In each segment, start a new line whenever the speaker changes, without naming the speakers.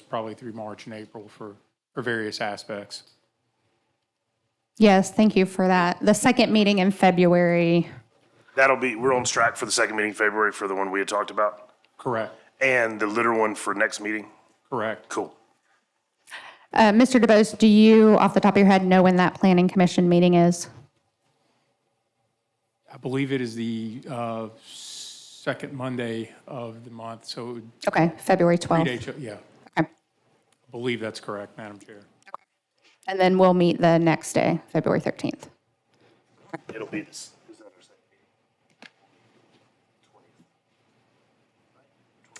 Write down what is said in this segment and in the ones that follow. probably through March and April for, for various aspects.
Yes, thank you for that. The second meeting in February,
That'll be, we're on track for the second meeting in February for the one we had talked about
Correct,
and the litter one for next meeting.
correct.
Cool.
uh, Mr. DeBose, do you, off the top of your head, know when that planning commission meeting is?
I believe it is the uh, second Monday of the month, so it would
Okay, February
be
12th.
day- yeah, I
Okay.
believe that's correct, Madam Chair.
And then we'll meet the next day, February 13th.
It'll be this. is that our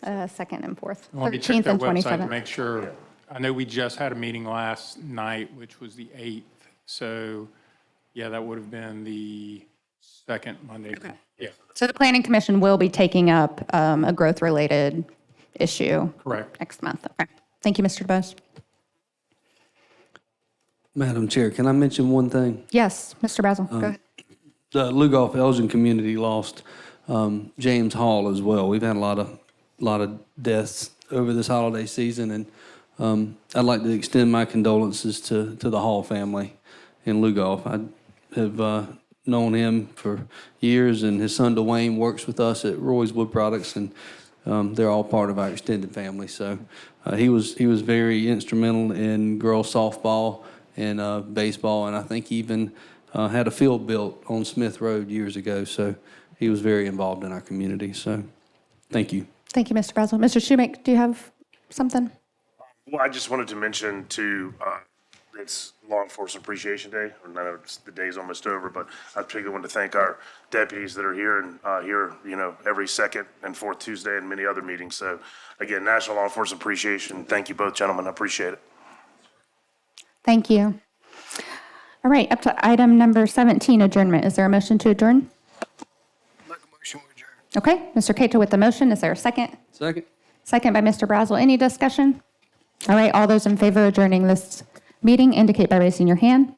second?
Uh, Second and fourth,
I want to check
13th
their
and
website to
27th.
make sure. I know we just had a meeting last night, which was the 8th. So, yeah, that would have been the second Monday. Yeah,
So the planning commission will be taking up um, a growth-related issue
correct.
next month. Okay, thank you, Mr. DeBose.
Madam Chair, can I mention one thing?
Yes, Mr. Basil, go ahead.
The Lugoff Elgin community lost um, James Hall as well. We've had a lot of lot of deaths over this holiday season, and um, I'd like to extend my condolences to to the Hall family in Lugoff. I have uh, known him for years, and his son Dwayne works with us at Roy's Wood Products, and um, they're all part of our extended family. So uh, he was he was very instrumental in girls softball and uh, baseball, and I think even uh, had a field built on Smith Road years ago. So he was very involved in our community. So thank you.
Thank you, Mr. Basil. Mr. Schumake, do you have something?
Well, I just wanted to mention to, uh, it's Law Enforcement Appreciation Day, or no, it's- the day's almost over, but I particularly want to thank our deputies that are here and, uh, here, you know, every second and fourth Tuesday and many other meetings. So again, National Law Enforcement Appreciation, thank you both, gentlemen, I appreciate it.
Thank you. All right, up to item number 17, adjournment. Is there a motion to adjourn? Okay, Mr. Cato with the motion. Is there a second?
Second.
Second by Mr. Brazel. Any discussion? All right, all those in favor of adjourning this meeting indicate by raising your hand.